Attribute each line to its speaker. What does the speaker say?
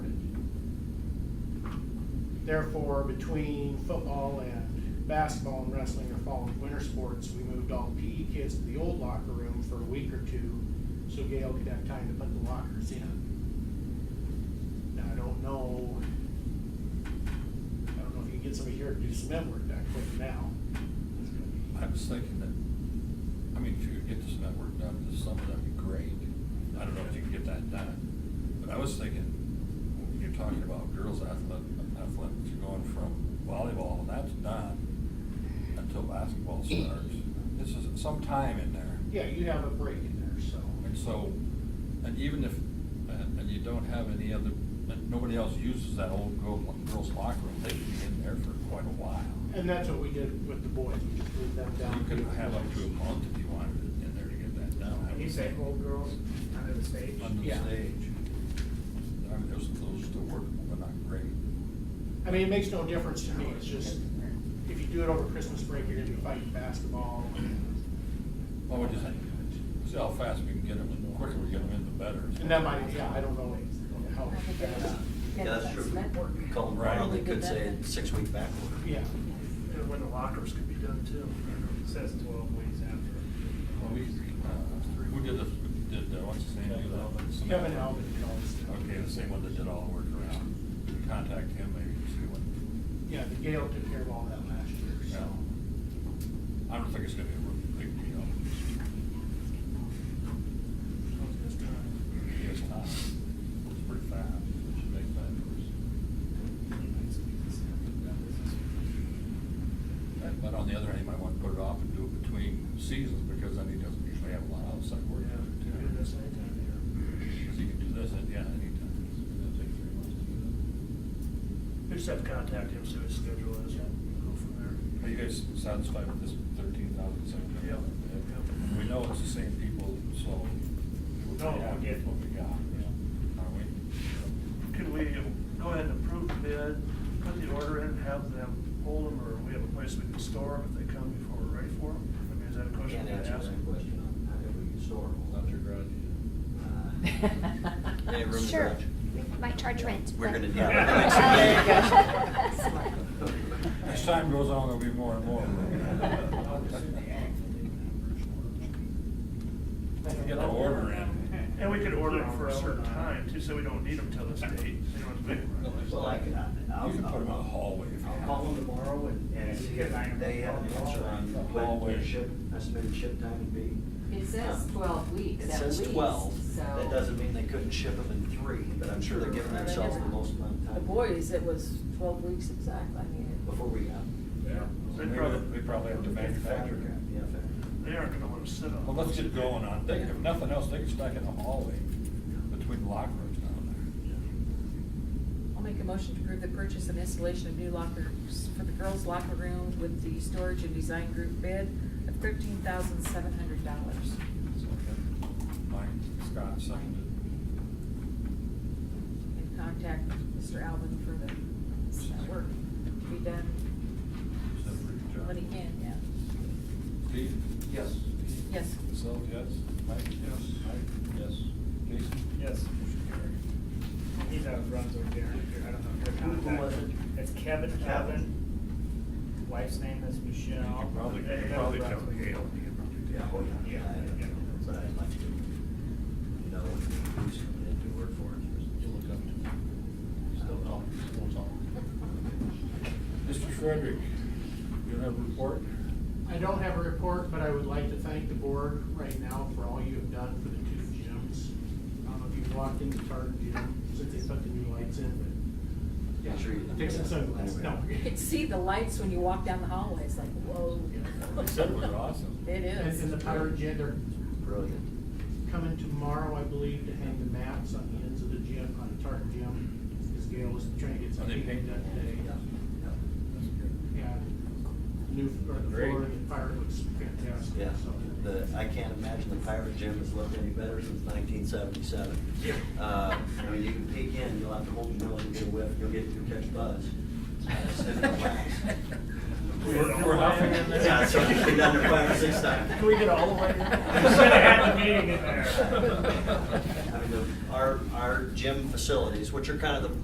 Speaker 1: Therefore, between football and basketball and wrestling are falling winter sports, we moved all the PE kids to the old locker room for a week or two so Gail could have time to put the lockers in. Now, I don't know, I don't know if you can get somebody here to do some network that quick now. It's gonna be-
Speaker 2: I was thinking that, I mean, if you could get this network done this summer, that'd be great. I don't know if you can get that done, but I was thinking, when you're talking about girls athletic, athletics, you're going from volleyball, and that's done until basketball starts. This is some time in there.
Speaker 1: Yeah, you have a break in there, so.
Speaker 2: And so, and even if, and and you don't have any other, and nobody else uses that old girl- girls locker room, they could be in there for quite a while.
Speaker 1: And that's what we did with the boys, we just moved them down.
Speaker 2: You could have up to a month if you wanted it in there to get that down.
Speaker 3: When you say old girls under the stage?
Speaker 2: Under the
Speaker 1: Yeah.
Speaker 2: stage. I mean, those, those still workable, but not great.
Speaker 1: I mean, it makes no difference to me, it's just, if you do it over Christmas break, you're gonna be fighting basketball. Oh,
Speaker 2: Well, we just, see how fast we can get them, and the quicker we get them in, the better.
Speaker 1: And that might, yeah, I don't know how fast,
Speaker 4: Yeah, that's true.
Speaker 5: Network.
Speaker 4: Call them
Speaker 2: Right.
Speaker 4: around, they could say six week back order.
Speaker 1: yeah.
Speaker 3: And when the lockers could be done too. It says twelve weeks
Speaker 2: Well,
Speaker 3: after.
Speaker 2: we, uh, who did the, did, uh, what's his name, do that?
Speaker 1: Kevin Albert did all this stuff.
Speaker 2: Okay, the same one that did all the work around. Contact him maybe and see what,
Speaker 1: Yeah, the Gale took care of all that last year, so.
Speaker 2: I don't think it's gonna be a real big deal. It's not, it's pretty fast, it should make that But- But on the other hand, you might want to put it off and do it between seasons, because then he doesn't usually have a lot of outside work. to do, too.
Speaker 3: Do this anytime
Speaker 2: Because he can do this, at- yeah, anytime. It's gonna take three months to do
Speaker 3: here. We just have to contact him, see what his schedule is, and go from
Speaker 2: that. Are
Speaker 3: there.
Speaker 2: you guys satisfied with this thirteen thousand seven
Speaker 3: Yep.
Speaker 2: hundred? We know it's the same people, so. we're
Speaker 3: No,
Speaker 2: happy
Speaker 3: we get-
Speaker 2: with What we got, yeah, aren't we?
Speaker 3: Could we go ahead and approve the bid, put the order in, have them hold them, or we have a place we can store them if they come before we're ready for them? I mean, is that a
Speaker 4: Can't
Speaker 3: question we can
Speaker 4: answer
Speaker 3: ask?
Speaker 4: that question on
Speaker 2: uh,
Speaker 4: how we can store
Speaker 2: That's your grudge.
Speaker 4: Uh, They have room in the
Speaker 6: Sure,
Speaker 4: garage.
Speaker 6: we might charge rent.
Speaker 4: We're
Speaker 6: but- uh,
Speaker 4: gonna do
Speaker 6: Yeah.
Speaker 2: As time goes on, there'll be more and more. Get the order in.
Speaker 3: And we could order them for a certain time too, so we don't need them till this date, you know, it's big.
Speaker 4: Well, I could, I'll.
Speaker 2: You can put them in the hallway if you
Speaker 4: I'll
Speaker 2: have.
Speaker 4: call them tomorrow and, and see if they have an answer on when their ship, estimated ship time would be.
Speaker 5: It says twelve weeks
Speaker 4: It
Speaker 5: at
Speaker 4: says
Speaker 5: least,
Speaker 4: twelve,
Speaker 5: so.
Speaker 4: that doesn't mean they couldn't ship them in three, but I'm sure they're giving themselves the most amount of time.
Speaker 7: The boys, it was twelve weeks exactly, I mean. it-
Speaker 4: Before we got. them.
Speaker 2: Yeah.
Speaker 3: They probably-
Speaker 2: We probably have to manufacture it.
Speaker 4: Yeah, fair.
Speaker 3: They aren't gonna wanna sit on.
Speaker 2: Well, let's get going on, they, if nothing else, they can stack in the hallway between locker rooms down
Speaker 7: I'll make a motion to approve the purchase and installation of new lockers for the girls' locker room with the storage and design group bid of thirteen thousand seven hundred dollars.
Speaker 2: there. Mike, Scott, seconded.
Speaker 7: And contact Mr. Alvin for the, that work to be done
Speaker 2: Said pretty good job.
Speaker 7: when he can, yeah.
Speaker 2: Steve? Yes.
Speaker 7: Yes.
Speaker 2: Myself, yes. Mike? Yes. Mike? Yes. Jason?
Speaker 3: Yes. He's out of Brunswick, Darren, if you're- I don't know if you're
Speaker 4: Who- who
Speaker 3: contacting.
Speaker 4: was it?
Speaker 3: It's Kevin Calvin. Wife's name is
Speaker 2: You
Speaker 3: Michelle.
Speaker 2: can probably, you
Speaker 3: They're
Speaker 2: can
Speaker 3: out of
Speaker 2: probably tell
Speaker 3: Brunswick.
Speaker 2: Gail. you can probably tell.
Speaker 4: Yeah, oh, yeah,
Speaker 3: Yeah,
Speaker 4: yeah,
Speaker 3: yeah.
Speaker 4: that's what I'd like to know, who's coming in to work for
Speaker 2: You
Speaker 4: it.
Speaker 2: look up to me. Still talk, still talk. Mr. Frederick, you have a report?
Speaker 1: I don't have a report, but I would like to thank the board right now for all you have done for the two gyms. I don't know if you've walked into Tartan Gym since they put the new lights in,
Speaker 4: Yeah, sure. you-
Speaker 1: but fix the sunglasses, no.
Speaker 7: You could see the lights when you walk down the hallway, it's like, whoa.
Speaker 2: They said it was awesome.
Speaker 7: It
Speaker 1: And
Speaker 7: is.
Speaker 1: and the Pirate Gym, they're
Speaker 4: Brilliant.
Speaker 1: coming tomorrow, I believe, to hang the mats on the ends of the gym, on the tartan gym, because Gail was trying to get
Speaker 2: Are
Speaker 1: some
Speaker 2: they
Speaker 1: paint
Speaker 2: painting
Speaker 1: done
Speaker 2: that
Speaker 1: today.
Speaker 2: That's good.
Speaker 1: Yeah, new, or the
Speaker 2: Great.
Speaker 1: flooring and fire looks fantastic,
Speaker 4: Yeah,
Speaker 1: so.
Speaker 4: the, I can't imagine the pirate gym has looked any better since nineteen seventy-seven.
Speaker 1: Yeah.
Speaker 4: Uh, I mean, you can peek in, you'll have to hold your nose and get a whiff, you'll get, you'll catch buzz.
Speaker 2: We're, we're huffing in there.
Speaker 4: Yeah, that's right, we've done it five or six times.
Speaker 3: Can we get all the way in? We should
Speaker 7: have
Speaker 3: had the meeting in there.
Speaker 4: I mean, the- our, our gym facilities, which are kind of the